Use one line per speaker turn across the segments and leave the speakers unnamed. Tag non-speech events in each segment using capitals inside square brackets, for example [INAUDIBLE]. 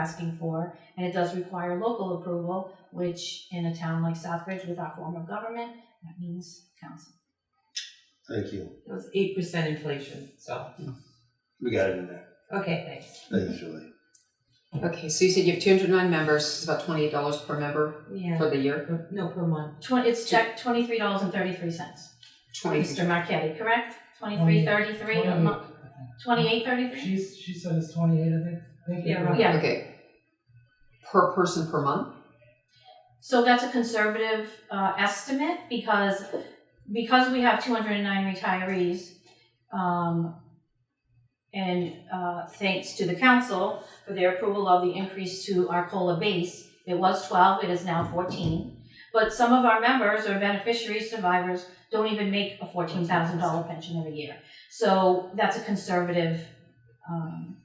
asking for, and it does require local approval, which in a town like Southbridge with our form of government, that means council.
Thank you.
It was eight percent inflation, so,
We got it in there.
okay, thanks.
Thanks, Julie.
Okay, so you said you have two hundred nine members, it's about twenty-eight dollars per member
Yeah,
for the year,
per- no, per month.
Twen- it's checked twenty-three dollars and thirty-three cents.
twenty,
Mr. Marquetti, correct? Twenty-three thirty-three a month, twenty-eight thirty-three?
She's, she said it's twenty-eight, I think. Thank you.
Yeah, right.
Yeah,
okay. Per person per month?
So that's a conservative uh, estimate because because we have 209 retirees, um, and uh, thanks to the council for their approval of the increase to our cola base, it was 12, it is now 14. But some of our members or beneficiaries, survivors, don't even make a $14,000 pension every year. So that's a conservative um,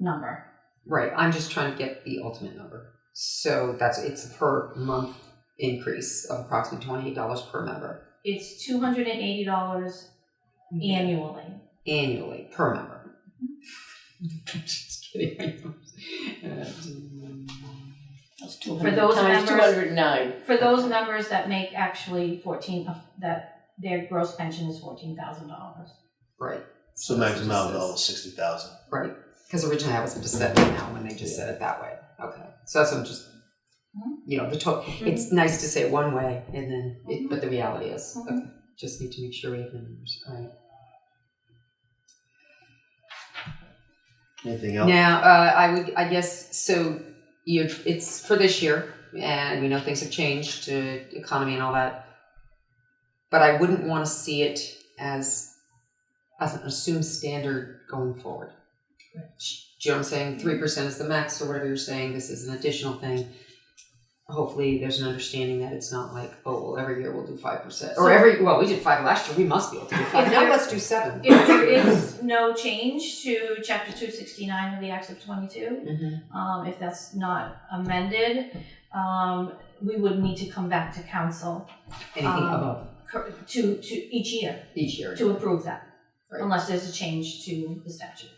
number.
Right, I'm just trying to get the ultimate number. So that's, it's a per month increase of approximately twenty-eight dollars per member
It's $280 annually.
annually, per member. Just kidding. Uh,
That's
For those
200 times
members-
209.
For those members that make actually fourteen, of- that their gross pension is fourteen thousand dollars.
Right,
So maximum amount is sixty thousand.
right, because originally I was just said it now when they just said it that way, okay, so that's what I'm just, you know, the total, It's nice to say it one way, and then, it, but the reality is,
Mhm.
okay, just need to make sure we have the numbers. All right.
Anything else?
Now, uh, I would, I guess, so you, it's for this year, and we know things have changed, uh, economy and all that. But I wouldn't want to see it as as an assumed standard going forward. Do you know what I'm saying? Three percent is the max, or whatever you're saying. This is an additional thing. Hopefully, there's an understanding that it's not like, oh, well, every year we'll do five percent, or
So-
every well, we did five last year. We must be able to do five. Now
there-
let's do seven.
If there is no change to chapter two sixty-nine of the Acts of twenty-two,
Mhm.
um, if that's not amended, um, we would need to come back to council
Anything
Um,
above
cor- to, to each year
each year.
to approve that,
Right.
unless there's a change to the statute.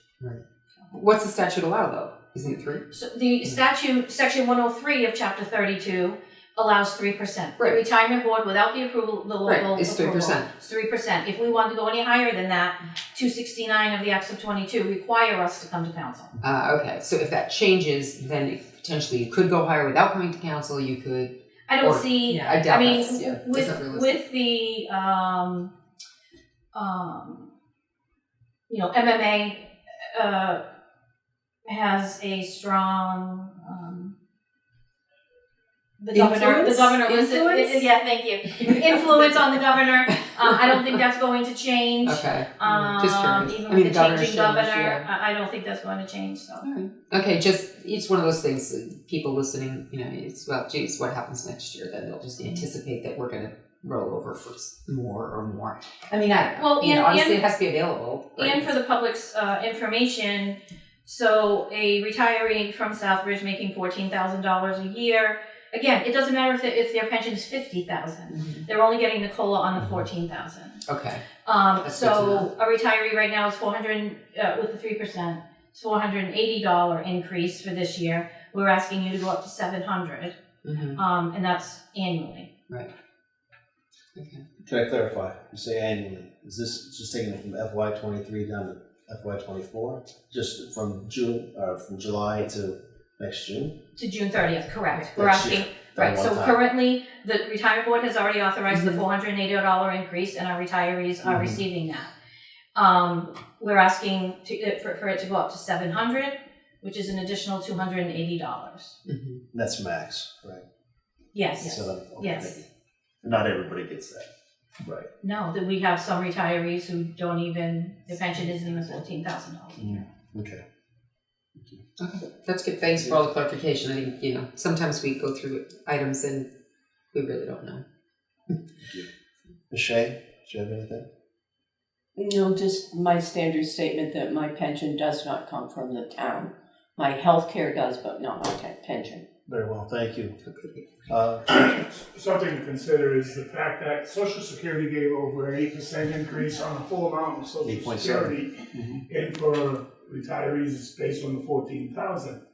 What's the statute allow though? Isn't it three?
So
Hmm.
the statute, section one oh three of chapter thirty-two allows three percent.
Right.
Retirement board without the approval, the local
Right,
approval.
it's 3%.
Three percent. If we wanted to go any higher than that, two sixty-nine of the acts of twenty-two require us to come to council.
Uh, okay, so if that changes, then it- potentially you could go higher without coming to council. You could.
I don't
Or-
see,
Yeah,
I
I
doubt
mean,
that's yeah. that's not
with,
realistic.
with the, um, um, you know, MMA, uh, has a strong, um, the governor, the
Influence?
governor was,
Influence?
yeah, thank you. influence on the governor. Uh, I don't think that's going to change.
[LAUGHS] okay.
Um,
just curious.
even
I
with
mean,
the
governor's
changing
changed,
governor,
yeah.
I, I don't think that's going to change. So
Okay, just it's one of those things. that People listening, you know, it's well, geez, what happens next year? Then they'll just
Mm-hmm.
anticipate that we're going to roll over for s- more or more. I mean, I
Well,
you
and-
know, obviously
and-
it has to be available. right?
and for the public's uh, information, so a retiree from Southbridge making fourteen thousand dollars a year. Again, it doesn't matter if, the, if their pension is fifty thousand;
Mhm.
they're only getting the cola on the fourteen thousand.
okay,
Um,
That's good to
so
know.
a retiree right now is four hundred, uh, with the three percent, it's four hundred and eighty dollar increase for this year. We're asking you to go up to seven hundred,
hmm
um, and that's annually.
okay.
Can I clarify? You say annually. Is this just taking it from FY twenty-three down to FY twenty-four? Just from June, uh, from July to next June?
To June thirtieth, correct. We're
Next year,
asking,
that
right,
one
so
time.
currently, the retirement board has already authorized the
Mhm.
four hundred and eighty dollar increase, and our retirees are
Mhm.
receiving that. Um, we're asking to, uh, for, for it to go up to seven hundred, which is an additional two hundred and eighty dollars.
hmm
That's max, right?
Yes,
So that- okay,
Yes.
thank you. Not everybody gets that. Right.
No, that we have some retirees who don't even, their pension isn't even fourteen thousand dollars.
Okay.
Okay, that's good. Thanks for all the clarification. I think, you know, sometimes we go through items and we really don't know.
Ms. Shea, do you have anything?
No, just my standard statement that my pension does not come from the town. My health care does, but not my te- pension.
Very well, thank you.
Okay.
Uh,
[CLEARS THROAT] Something to consider is the fact that Social Security gave over an eight percent increase on the full amount of Social
8.7.
Security.
mhm.
And for retirees, it's based on the fourteen thousand.